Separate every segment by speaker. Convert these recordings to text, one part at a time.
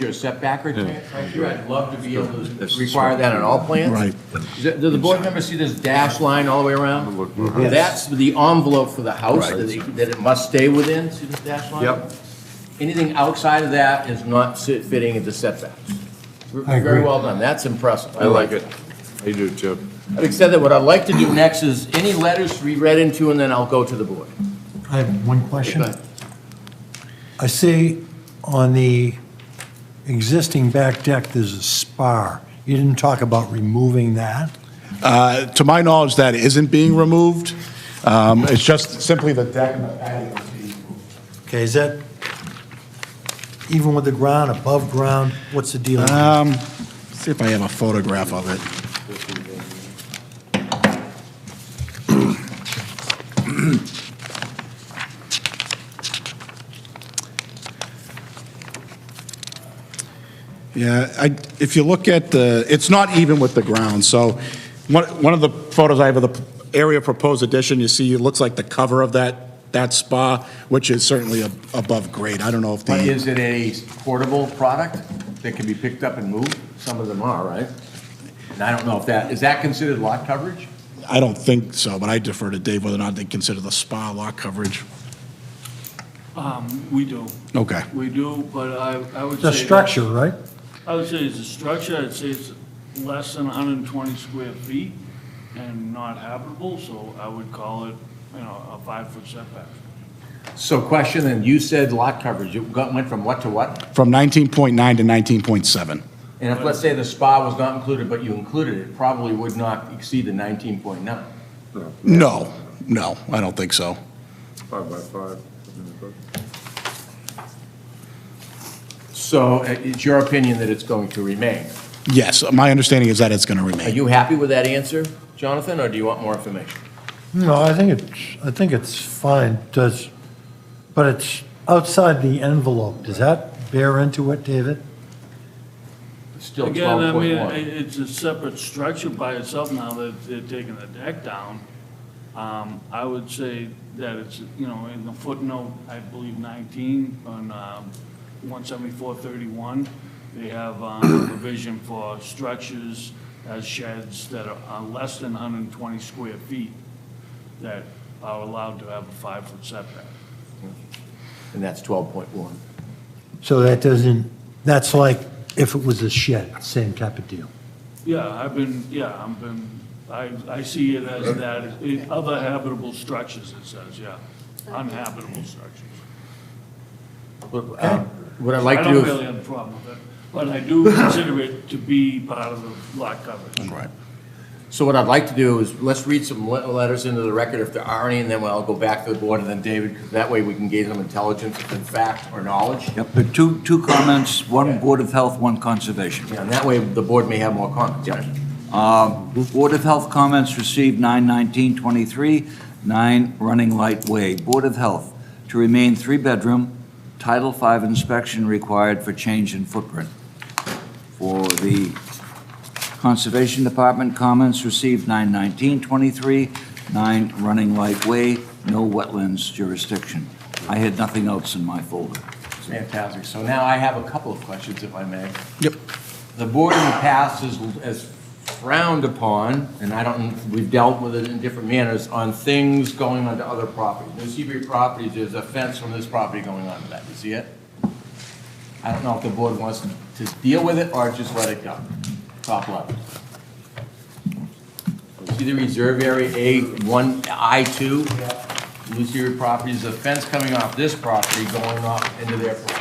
Speaker 1: your setback or here, I'd love to be able to require that on all plans.
Speaker 2: Right.
Speaker 1: Is that- Do the board members see this dash line all the way around? That's the envelope for the house that it, that it must stay within, see this dash line?
Speaker 3: Yep.
Speaker 1: Anything outside of that is not sit- fitting into setbacks. Very well done, that's impressive, I like it.
Speaker 3: I do too.
Speaker 1: Having said that, what I'd like to do next is any letters to be read into, and then I'll go to the board.
Speaker 2: I have one question.
Speaker 1: Go ahead.
Speaker 2: I see on the existing back deck, there's a spar. You didn't talk about removing that?
Speaker 4: Uh, To my knowledge, that isn't being removed. Um, It's just simply the deck and the patio is being moved.
Speaker 2: Okay, is that, even with the ground, above ground, what's the deal?
Speaker 4: Um, See if I have a photograph of it. Yeah, I, if you look at the, it's not even with the ground, so one, one of the photos I have of the area proposed addition, you see, it looks like the cover of that, that spa, which is certainly ab- above grade. I don't know if
Speaker 1: But
Speaker 4: the,
Speaker 1: is it a portable product that can be picked up and moved? Some of them are, right? And I don't know if that, is that considered lot coverage?
Speaker 4: I don't think so, but I defer to Dave whether or not they consider the spa lot coverage.
Speaker 5: Um, We do,
Speaker 4: Okay.
Speaker 5: we do, but I, I would
Speaker 2: It's
Speaker 5: say.
Speaker 2: a structure, right?
Speaker 5: I would say it's a structure, I'd say it's less than hundred and twenty square feet and not habitable, so I would call it, you know, a five-foot setback.
Speaker 1: So question, and you said lot coverage, it got- went from what to what?
Speaker 4: From 19.9 to 19.7.
Speaker 1: And if, let's say the spa was not included, but you included it, probably would not exceed the 19.9.
Speaker 4: No, no, I don't think so.
Speaker 3: Five by five.
Speaker 1: So uh, it's your opinion that it's going to remain.
Speaker 4: Yes, my understanding is that it's going to
Speaker 1: Are
Speaker 4: remain.
Speaker 1: you happy with that answer, Jonathan, or do you want more information?
Speaker 2: No, I think it's, I think it's fine, does, but it's outside the envelope. Does that bear into it, David?
Speaker 1: Still
Speaker 5: Again, I mean,
Speaker 1: 12.1.
Speaker 5: it- it's a separate structure by itself now that they're taking the deck down. Um, I would say that it's, you know, in the footnote, I believe nineteen on, um, one seventy-four thirty-one, they have, um, a provision for structures as sheds that are, are less than hundred and twenty square feet that are allowed to have a five-foot setback.
Speaker 1: And that's 12.1.
Speaker 2: So that doesn't, that's like if it was a shed, same type of deal.
Speaker 5: Yeah, I've been, yeah, I've been, I, I see it as that, it- other habitable structures, it says, yeah, unhabitable structures.
Speaker 1: Look, um, What I'd like
Speaker 5: I
Speaker 1: to do
Speaker 5: don't
Speaker 1: is...
Speaker 5: really have a problem with it, but I do consider it to be part of the lot coverage.
Speaker 4: Right.
Speaker 1: So what I'd like to do is, let's read some le- letters into the record if there are any, and then I'll go back to the board, and then David, because that way we can gain some intelligence, if in fact or knowledge.
Speaker 6: Yep, but two, two comments, one Board of Health, one Conservation. Uh,
Speaker 1: Yeah, And that way, the board may have more comments. right?
Speaker 6: Board of Health comments received 9/19/23, 9 Running Light Way. Board of Health, to remain three-bedroom, Title V inspection required for change in footprint. For the Conservation Department, comments received 9/19/23, 9 Running Light Way, no wetlands jurisdiction. I had nothing else in my folder.
Speaker 1: Fantastic. So now I have a couple of questions, if I may.
Speaker 4: Yep.
Speaker 1: The board in the past has- has frowned upon, and I don't, we've dealt with it in different manners, on things going onto other properties. New Seabury Properties, there's a fence from this property going onto that. You see it? I don't know if the board wants to deal with it or just let it go. Top level. See the reserve area A1, I2? New Seabury Properties, the fence coming off this property going off into their property.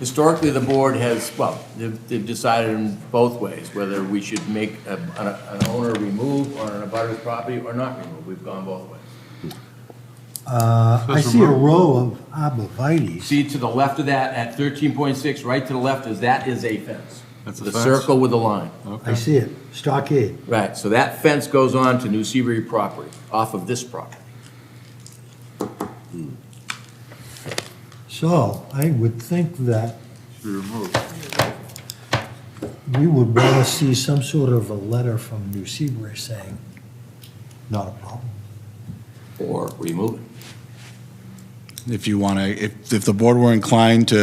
Speaker 1: Historically, the board has, well, they've they've decided in both ways, whether we should make a- an an owner remove on an abutter's property or not remove. We've gone both ways.
Speaker 2: Uh, I see a row of abovites.
Speaker 1: See, to the left of that, at 13.6, right to the left is, that is a fence.
Speaker 3: That's a
Speaker 1: The
Speaker 3: fence?
Speaker 1: circle with the line.
Speaker 2: I see it, stockade.
Speaker 1: Right, so that fence goes on to New Seabury property, off of this property.
Speaker 2: So I would think that
Speaker 3: Be removed.
Speaker 2: we would want to see some sort of a letter from New Seabury saying, not a problem.
Speaker 1: Or remove it.
Speaker 4: if you want to, if, if the board were inclined to